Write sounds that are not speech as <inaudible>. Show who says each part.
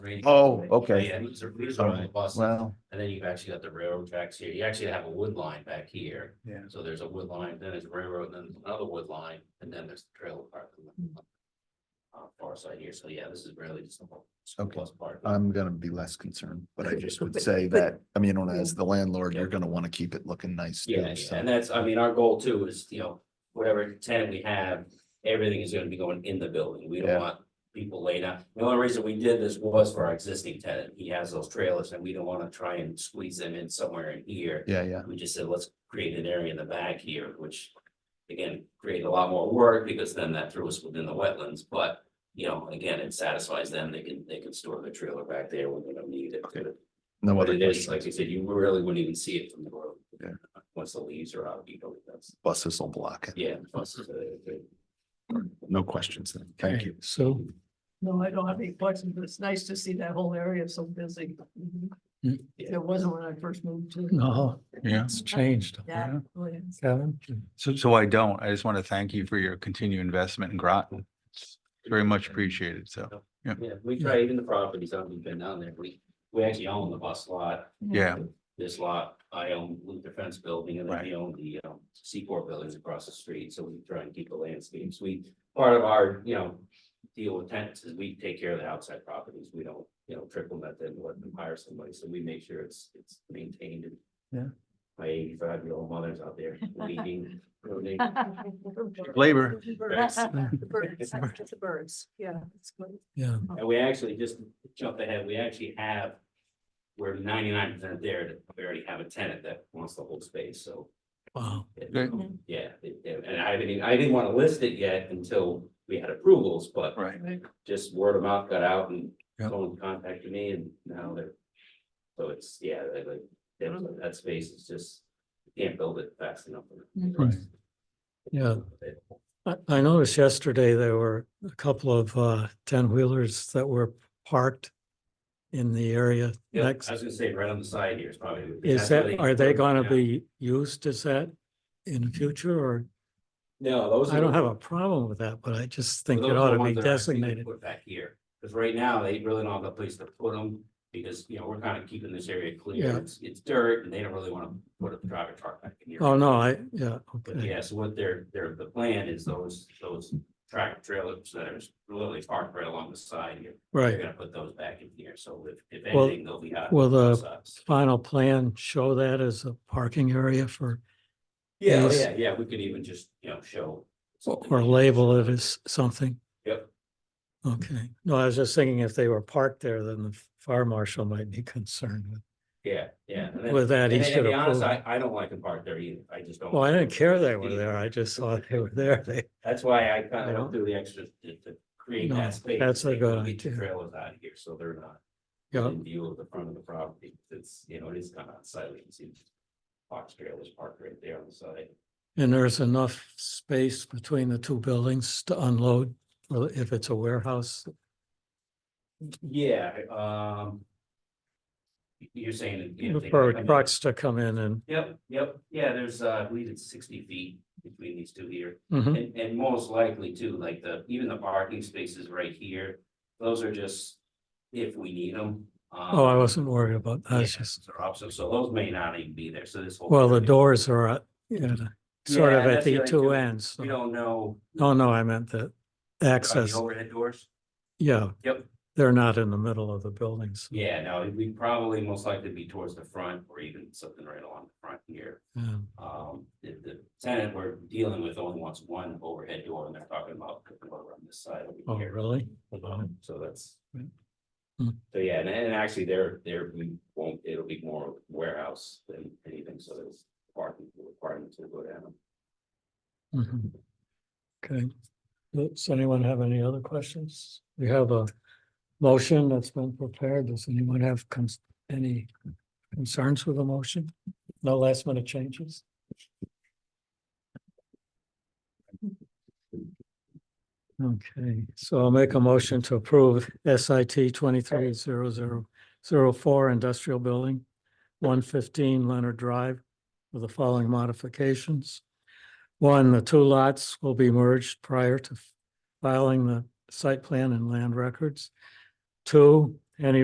Speaker 1: grade.
Speaker 2: Oh, okay.
Speaker 1: Yeah, these are, these are all the
Speaker 2: Alright,
Speaker 1: buses.
Speaker 2: Well,
Speaker 1: And then you've actually got the railroad tracks here. You actually have a wood line back here.
Speaker 2: Yeah.
Speaker 1: So there's a wood line, then there's railroad, then there's another wood line, and then there's the trailer park. on the Uh, far side here. So yeah, this is really just a whole school
Speaker 2: Okay.
Speaker 1: bus park.
Speaker 2: I'm gonna be less concerned, but I
Speaker 1: <laughs>
Speaker 2: just would say that, I mean, on as the landlord, you're gonna wanna keep it looking nice. too,
Speaker 1: Yeah, yeah,
Speaker 2: so.
Speaker 1: and that's, I mean, our goal too is, you know, whatever tenant we have, everything is gonna be going in the building. We
Speaker 2: Yeah.
Speaker 1: don't want people laid out. The only reason we did this was for our existing tenant. He has those trailers and we don't wanna try and squeeze them in somewhere in here.
Speaker 2: Yeah, yeah,
Speaker 1: We just said, let's create an area in the back here, which again, create a lot more work because then that threw us within the wetlands, but you know, again, it satisfies them. They can, they can store their trailer back there when they don't need it.
Speaker 2: Okay. no
Speaker 1: But
Speaker 2: other
Speaker 1: it is, like
Speaker 2: questions.
Speaker 1: you said, you really wouldn't even see it from the road.
Speaker 2: Yeah.
Speaker 1: Once the leaves are out, you know, that's,
Speaker 2: Buses will block it.
Speaker 1: yeah. plus, uh,
Speaker 2: No questions then. Thank
Speaker 3: Okay,
Speaker 2: you.
Speaker 3: So,
Speaker 4: No, I don't have any questions, but it's nice to see that whole area so busy.
Speaker 3: Hmm.
Speaker 4: It wasn't when I first moved to.
Speaker 3: no,
Speaker 5: Yeah.
Speaker 3: it's changed.
Speaker 4: Yeah.
Speaker 3: yeah.
Speaker 4: oh, <laughs> yes.
Speaker 3: Kevin?
Speaker 5: So, so I don't. I just want to thank you for your continued investment in Groton. It's Very much appreciated. So,
Speaker 1: Yeah, we try even the properties, I've been down there, we, we actually own the bus lot,
Speaker 5: yeah,
Speaker 1: this lot, I own Luther Fence Building, and then we own the um Seaport Buildings across the street, so we try and keep the landscapes, we, part of our, you know, deal with tenants is we take care of the outside properties, we don't, you know, triple net them, let them hire somebody, so we make sure it's, it's maintained and
Speaker 3: Yeah.
Speaker 1: my eighty-five year old mother's out there weeding, pruning,
Speaker 5: labor.
Speaker 4: The birds, the birds, the birds, yeah. it's good.
Speaker 3: Yeah,
Speaker 1: And we actually just jumped ahead, we actually have. We're ninety-nine percent there, that we already have a tenant that wants the whole space, so.
Speaker 3: wow.
Speaker 1: it-
Speaker 5: Great.
Speaker 1: Yeah, it- it- and I didn't, I didn't want to list it yet until we had approvals, but
Speaker 5: Right.
Speaker 1: just word of mouth got out and
Speaker 3: Yeah.
Speaker 1: someone contacted me and now they're. So it's, yeah, they like, that- that space is just, you can't build it fast enough. for the
Speaker 3: Right.
Speaker 1: rest.
Speaker 3: Yeah. I, I noticed yesterday there were a couple of, uh, ten-wheelers that were parked in the area
Speaker 1: Yeah, I was
Speaker 3: next.
Speaker 1: gonna say right on the side here is probably.
Speaker 3: Is
Speaker 1: that's where
Speaker 3: that, are they gonna
Speaker 1: Yeah.
Speaker 3: be used as that in the future or?
Speaker 1: No, those. are
Speaker 3: I don't
Speaker 1: the-
Speaker 3: have a problem with that, but I just think
Speaker 1: Well,
Speaker 3: it
Speaker 1: those are
Speaker 3: ought
Speaker 1: the
Speaker 3: to be
Speaker 1: ones that are actually gonna
Speaker 3: designated.
Speaker 1: Put back here, because right now they really don't have a place to put them, because, you know, we're kind of keeping this area
Speaker 3: Yeah.
Speaker 1: clear. It's, it's dirt and they don't really want to put a driver truck back in here.
Speaker 3: Oh, no, I, yeah,
Speaker 1: But
Speaker 3: okay.
Speaker 1: yeah, so what their, their, the plan is those, those track trailers that are literally parked right along the side here. They're
Speaker 3: Right.
Speaker 1: gonna put those back in here, so if, if
Speaker 3: Well- uh,
Speaker 1: anything, they'll be out.
Speaker 3: Will
Speaker 1: on
Speaker 3: the
Speaker 1: sides.
Speaker 3: final plan show that as a parking area for,
Speaker 1: Yeah, oh
Speaker 3: is-
Speaker 1: yeah, yeah, we could even just, you know, show. something.
Speaker 3: or label it as something?
Speaker 1: Yep.
Speaker 3: Okay. No, I was just thinking if they were parked there, then the fire marshal might be concerned with,
Speaker 1: Yeah, yeah. and then-
Speaker 3: with that.
Speaker 1: And
Speaker 3: He
Speaker 1: and to
Speaker 3: should
Speaker 1: be honest,
Speaker 3: approve.
Speaker 1: I, I don't like them parked there either. I just don't.
Speaker 3: Well, I didn't care they were
Speaker 1: Yeah.
Speaker 3: there. I just saw they were there. They,
Speaker 1: That's why I kind
Speaker 3: You
Speaker 1: of
Speaker 3: know?
Speaker 1: went through the extra to, to create
Speaker 3: No,
Speaker 1: that space.
Speaker 3: that's a
Speaker 1: They
Speaker 3: good
Speaker 1: Get the
Speaker 3: idea.
Speaker 1: trailers out of here, so they're not
Speaker 3: yeah,
Speaker 1: in view of the front of the property. It's, you know, it is kind of unsightly. You can see box trailers parked right there on the side.
Speaker 3: and there's enough space between the two buildings to unload well, if it's a warehouse.
Speaker 1: Yeah, um. You're saying. that, you know, they
Speaker 3: For
Speaker 1: can come in-
Speaker 3: trucks to come in and,
Speaker 1: Yep, yep, yeah, there's, uh, I believe it's sixty feet between these two here.
Speaker 3: Mhm.
Speaker 1: And, and most likely too, like the, even the parking spaces right here, those are just if we need them.
Speaker 3: oh, I wasn't worried about that.
Speaker 1: Yeah,
Speaker 3: It's just,
Speaker 1: those are options, so those may not even be there, so this whole.
Speaker 3: well, the
Speaker 1: area-
Speaker 3: doors are at, you know, sort
Speaker 1: Yeah,
Speaker 3: of at
Speaker 1: that's the
Speaker 3: the
Speaker 1: other
Speaker 3: two
Speaker 1: thing.
Speaker 3: ends. so-
Speaker 1: We don't know.
Speaker 3: No, no, I meant the
Speaker 1: about the
Speaker 3: access.
Speaker 1: Overhead doors?
Speaker 3: Yeah.
Speaker 1: Yep.
Speaker 3: They're not in the middle of the buildings.
Speaker 1: Yeah, no, we probably most likely be towards the front or even something right along the front here.
Speaker 3: Yeah.
Speaker 1: Um, the, the tenant we're dealing with only wants one overhead door and they're talking about putting one on this side
Speaker 3: Oh,
Speaker 1: over here.
Speaker 3: really?
Speaker 1: Um, So that's.
Speaker 3: Hmm.
Speaker 1: So yeah, and, and actually there, there, we won't, it'll be more warehouse than anything, so there's parking requirements will go down.
Speaker 3: Mhm. Okay. Does anyone have any other questions? We have a motion that's been prepared. Does anyone have cons- any concerns with the motion? No last minute changes? Okay, so I'll make a motion to approve SIT twenty-three zero zero zero four industrial building, one fifteen Leonard Drive with the following modifications. One, the two lots will be merged prior to filing the site plan and land records. Two, any